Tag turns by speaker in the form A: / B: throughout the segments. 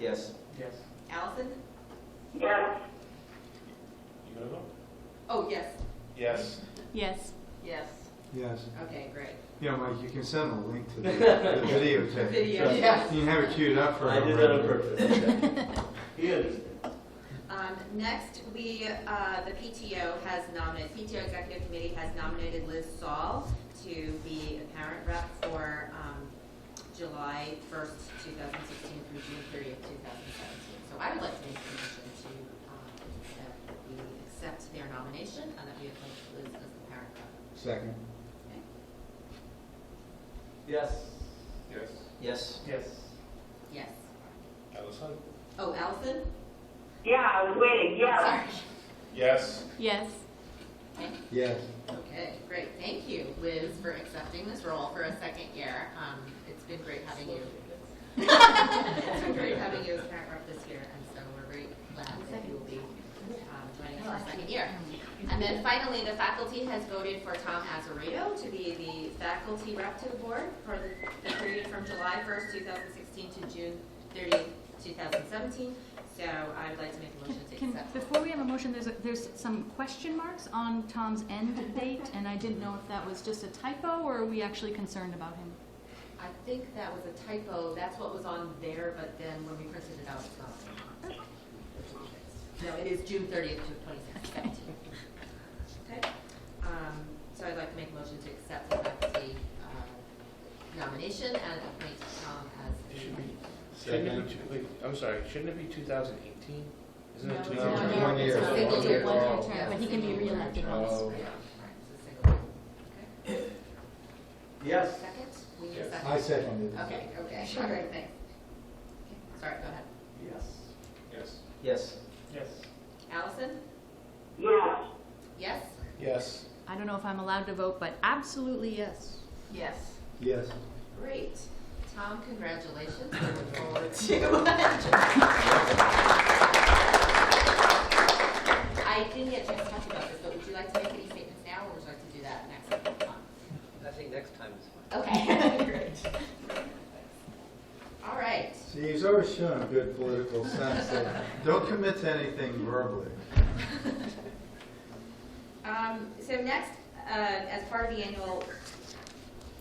A: Yes.
B: Yes.
C: Allison?
D: yes,
B: You gonna vote?
C: Oh, yes.
B: Yes.
E: Yes.
C: Yes.
F: Yes.
C: Okay, great.
F: Yeah, Mike, you can send a link to the the videotape.
C: Video,
B: Yes.
C: yes.
F: You can have it queued up for.
A: I did that on purpose.
B: He is.
C: Um, next, we, uh, the PTO has nominated, PTO Executive Committee has nominated Liz Saul to be a parent rep for, um, July first, two thousand sixteen through June thirtieth, two thousand seventeen. So I would like to make a motion to, um, that we accept their nomination and that we appoint Liz as the parent rep.
F: Second.
C: Okay?
A: Yes.
B: Yes.
A: Yes.
B: Yes.
C: Yes.
B: Allison?
C: Oh, Allison?
D: yeah, I was waiting, yes.
C: Sorry.
B: Yes.
E: Yes.
C: Okay.
F: Yes.
C: Okay, great, thank you, Liz, for accepting this role for a second year. Um, It's been great having you. It's been great having you as parent rep this year, and so we're very glad that you will be um, joining us for a second year. And then finally, the faculty has voted for Tom Azarito to be the faculty rep to the board for the- the period from July 1st, 2016 to June 30th, 2017. So I'd like to make a motion to
E: Can,
C: accept.
E: before we have a motion, there's, a- there's some question marks on Tom's end date, and I didn't know if that was just a typo, or are we actually concerned about him?
C: I think that was a typo, that's what was on there, but then when we printed it out, it's not. No, it is June thirtieth to seventeen. Okay, um, so I'd like to make a motion to accept the faculty, uh, nomination and appoint Tom as
G: It
C: the.
G: should be, shouldn't it be, two- wait, I'm sorry, shouldn't it be 2018? Isn't it
C: Oh, No, it's
G: 2018?
F: not. One year.
C: It's a single
F: One
C: year.
F: year. Oh. One-year
E: term, but he can be reelected
C: Yeah,
E: once.
C: right, it's a single year. Okay.
A: Yes.
C: Second, we need a
B: Yes.
C: second.
F: I seconded it.
C: Okay, okay, all right, thanks. Okay, Sorry, go ahead.
A: Yes.
B: Yes.
A: Yes.
B: Yes.
C: Allison?
D: Yes,
C: Yes?
G: Yes,
E: I don't know if I'm allowed to vote, but absolutely yes.
C: Yes.
F: Yes.
C: Great. Tom, congratulations. We look forward to. I didn't get a chance to talk about this, but would you like to make any statements now, or would you like to do that next time?
A: I think next time is fine.
C: Okay, great. All right.
F: See, he's always shown a good political sense. so Don't commit to anything verbally.
C: Um, so next, uh, as part of the annual,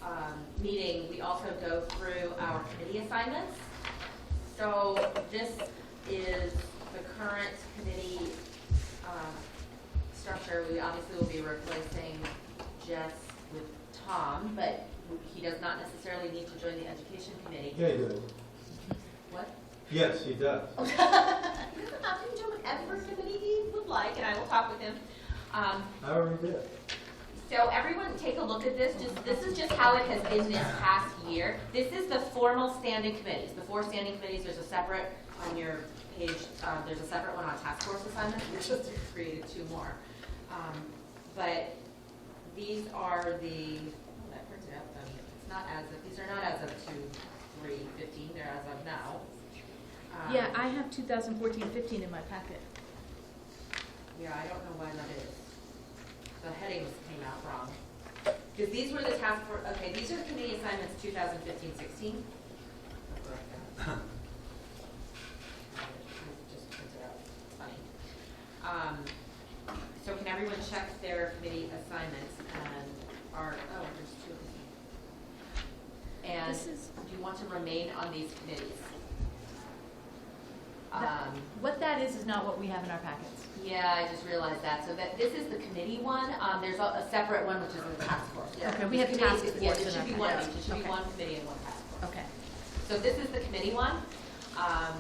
C: um, meeting, we also go through our committee assignments. So this is the current committee, um, structure. We obviously will be replacing Jess with Tom, but he does not necessarily need to join the education committee.
F: Yeah, he does.
C: What?
F: Yes, he does.
C: You can have him join whatever committee he would like, and I will talk with him. Um,
F: I already did.
C: So everyone take a look at this, just, this is just how it has been this past year. This is the formal standing committees, the four standing committees, there's a separate on your page, uh, there's a separate one on task force assignments, we just created two more. Um, But these are the, oh, that printed out, um, it's not as of, these are not as of two, three, fifteen, they're as of now. Um,
E: Yeah, I have 2014-15 in my packet.
C: Yeah, I don't know why that is. The headings came out wrong. Because these were the task for, okay, these are committee assignments 2015, 16. Just printed out, It's funny. Um, So can everyone check their committee assignments and are, oh, there's two of
E: This
C: them.
E: is-
C: And do you want to remain on these committees?
E: That-
C: Um,
E: What that is, is not what we have in our packets.
C: yeah, I just realized that. So that, this is the committee one. Um, there's a, a separate one, which is the task force.
E: Okay, we have
C: Committee-
E: task
C: Yeah,
E: force
C: it
E: in
C: should
E: our
C: be one,
E: packet.
C: it should be
E: Okay.
C: one committee and one task force.
E: Okay.
C: So this is the committee one. Um,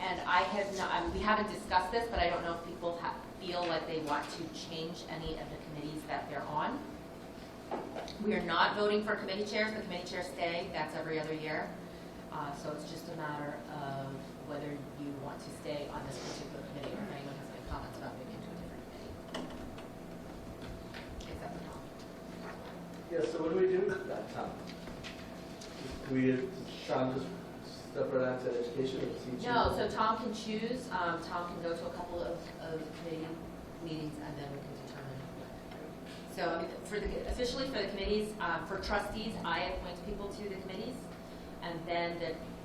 C: and I have not, I mean, we haven't discussed this, but I don't know if people ha feel like they want to change any of the committees that they're on. We are not voting for committee chairs. The committee chairs stay. That's every other year. Uh, so it's just a matter of whether you want to stay on this particular committee or if anyone has any comments about moving to a different committee. Except for Tom.
A: Yes, so what do we do with that time? Do we, does Sean just step right onto education or teaching?
C: No, so Tom can choose, um, Tom can go to a couple of, of committee meetings and then we can determine. So I mean, for the, officially for the committees, uh, for trustees, I appoint people to the committees. And then the